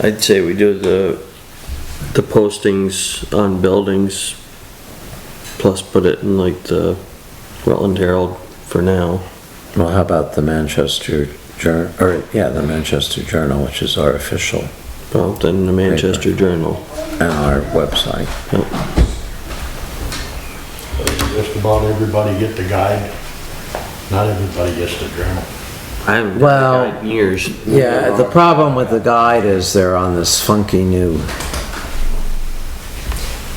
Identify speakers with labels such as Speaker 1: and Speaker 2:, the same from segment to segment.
Speaker 1: I'd say we do the, the postings on buildings, plus put it in like the Rutland Herald for now.
Speaker 2: Well, how about the Manchester Journal, or, yeah, the Manchester Journal, which is our official,
Speaker 1: Well, then the Manchester Journal.
Speaker 2: and our website.
Speaker 3: Just about everybody get the guide. Not everybody gets the journal.
Speaker 1: I haven't
Speaker 2: Well-
Speaker 1: done it in years.
Speaker 2: Yeah, the problem with the guide is they're on this funky new,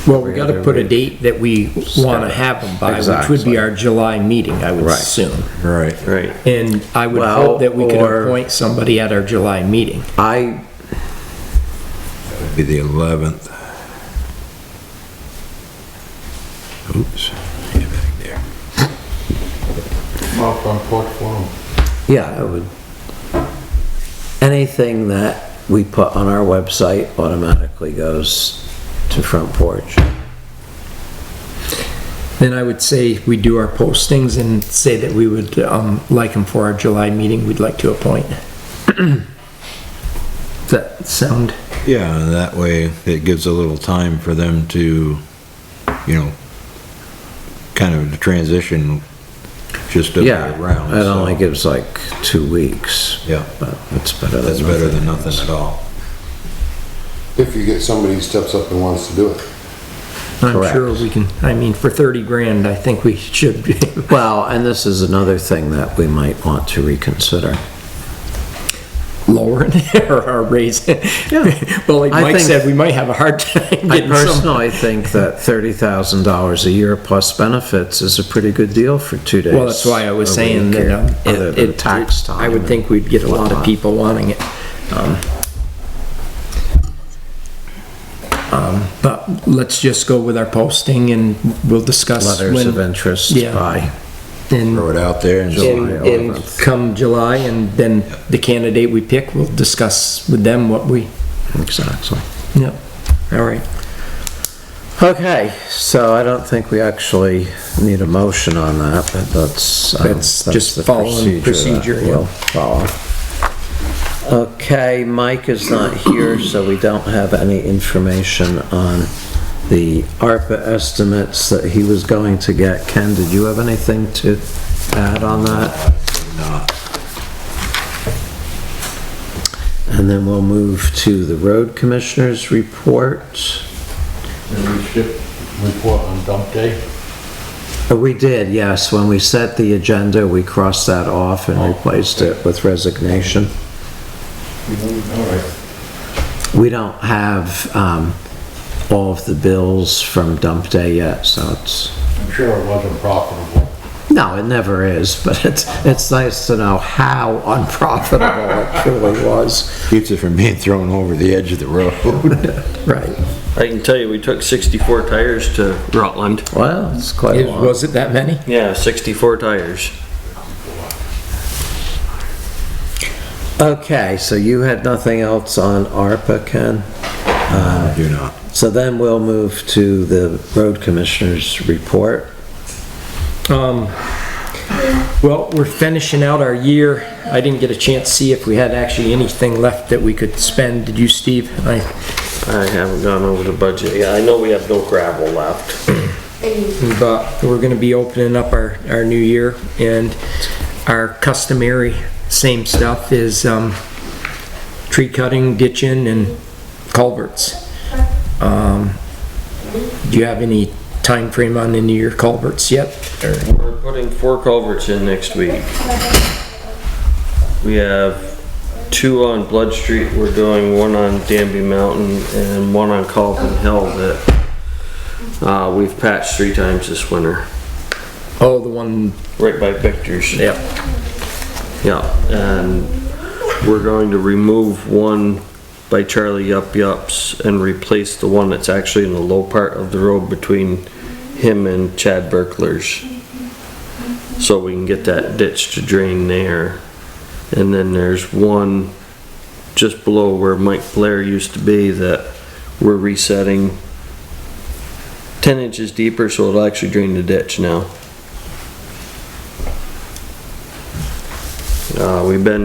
Speaker 4: Well, we gotta put a date that we wanna have them by, which would
Speaker 2: Exactly.
Speaker 4: be our July meeting, I would
Speaker 2: Right.
Speaker 4: assume.
Speaker 5: Right.
Speaker 1: Right.
Speaker 4: And I would
Speaker 2: Well,
Speaker 4: hope that we could
Speaker 2: or-
Speaker 4: appoint somebody at our July meeting.
Speaker 2: I,
Speaker 5: Be the 11th. Oops. Get back there.
Speaker 3: Well, front porch forum.
Speaker 2: yeah, I would. Anything that we put on our website automatically goes to front porch.
Speaker 4: Then I would say we do our postings and say that we would, um, like them for our July meeting, we'd like to appoint. Does that sound?
Speaker 5: Yeah, and that way it gives a little time for them to, you know, kind of transition just up
Speaker 2: Yeah,
Speaker 5: and around.
Speaker 2: it only
Speaker 5: so-
Speaker 2: gives like two weeks,
Speaker 5: Yeah,
Speaker 2: but it's better than
Speaker 5: that's better than nothing at all.
Speaker 6: If you get somebody who steps up and wants to do it.
Speaker 4: I'm
Speaker 2: Correct.
Speaker 4: sure we can, I mean, for thirty grand, I think we should be.
Speaker 2: Well, and this is another thing that we might want to reconsider.
Speaker 4: lowering or raising. But like
Speaker 2: I
Speaker 4: Mike
Speaker 2: think-
Speaker 4: said, we might have a hard time
Speaker 2: I
Speaker 4: getting some.
Speaker 2: personally think that thirty thousand dollars a year plus benefits is a pretty good deal for two days.
Speaker 4: Well, that's why I was
Speaker 2: a
Speaker 4: saying
Speaker 2: week
Speaker 4: that.
Speaker 2: here,
Speaker 4: um, it-
Speaker 2: Other than
Speaker 4: it-
Speaker 2: tax time.
Speaker 4: I would
Speaker 2: and
Speaker 4: think we'd get a lot of
Speaker 2: whatnot.
Speaker 4: people wanting it. Um, um, But let's just go with our posting and we'll discuss.
Speaker 2: Letters
Speaker 4: when-
Speaker 2: of interest
Speaker 4: Yeah.
Speaker 2: by,
Speaker 4: in-
Speaker 5: Throw it out there and
Speaker 4: in-
Speaker 2: July
Speaker 4: in
Speaker 2: 11th.
Speaker 4: come July and then the candidate we pick, we'll discuss with them what we,
Speaker 2: exactly.
Speaker 4: yeah, all right.
Speaker 2: Okay, so I don't think we actually need a motion on that, but that's, um,
Speaker 4: That's
Speaker 2: that's
Speaker 4: just
Speaker 2: the
Speaker 4: following
Speaker 2: procedure
Speaker 4: procedure,
Speaker 2: that
Speaker 4: yeah.
Speaker 2: we'll follow. Okay, Mike is not here, so we don't have any information on the ARPA estimates that he was going to get. Ken, did you have anything to add on that?
Speaker 5: not.
Speaker 2: And then we'll move to the road commissioner's report.
Speaker 3: And we ship report on dump day.
Speaker 2: Uh, We did, yes. When we set the agenda, we crossed that off and replaced it with resignation.
Speaker 3: All right.
Speaker 2: We don't have um, all of the bills from dump day yet, so it's,
Speaker 3: I'm sure it wasn't profitable.
Speaker 2: no, it never is, but it's, it's nice to know how unprofitable it truly was.
Speaker 5: Keeps it from being thrown over the edge of the road.
Speaker 2: Right.
Speaker 1: I can tell you, we took sixty-four tires to Rutland.
Speaker 2: Well, it's quite a lot.
Speaker 4: Was it that many?
Speaker 1: Yeah, sixty-four tires.
Speaker 2: Okay, so you had nothing else on ARPA, Ken?
Speaker 5: Do not.
Speaker 2: So then we'll move to the road commissioner's report.
Speaker 4: Um, well, we're finishing out our year. I didn't get a chance to see if we had actually anything left that we could spend. Did you, Steve? I,
Speaker 1: I haven't gone over the budget. Yeah, I know we have no gravel left.
Speaker 4: but we're gonna be opening up our, our new year and our customary same stuff is, um, tree cutting, ditching and culverts. Um, do you have any time frame on any of your culverts yet?
Speaker 1: We're putting four culverts in next week. We have two on Blood Street, we're doing one on Danby Mountain and one on Calvin Hill that, uh, we've patched three times this winter,
Speaker 4: Oh, the one,
Speaker 1: right by Victor's.
Speaker 4: yep.
Speaker 1: Yeah, and we're going to remove one by Charlie Yup Yups and replace the one that's actually in the low part of the road between him and Chad Berkler's. So we can get that ditch to drain there. And then there's one just below where Mike Blair used to be that we're resetting ten inches deeper, so it'll actually drain the ditch now. Uh, we've been